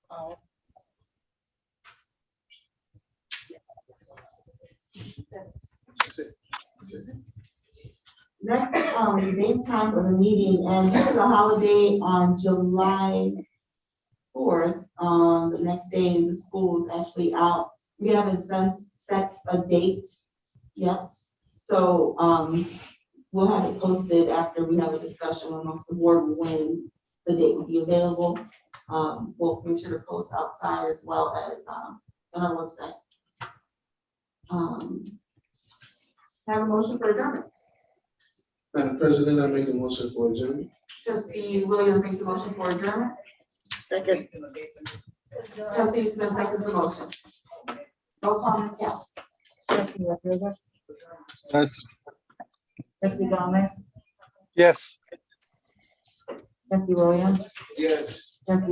That's it. Next, um, date time of the meeting, and this is a holiday on July fourth, um, the next day, the school is actually out. We haven't sent, set a date yet, so, um, we'll have it posted after we have a discussion amongst the board when the date will be available. Um, we'll make sure to post outside as well as, um, on our website. Um, have a motion for adjournment. Madam President, I make a motion for adjournment. Trustee Williams makes a motion for adjournment. Second. Trustee Smith seconds the motion. Roll call, Ms. Gals. Trustee Rodriguez, Yes. trustee Gomez, Yes. trustee Williams, Yes. trustee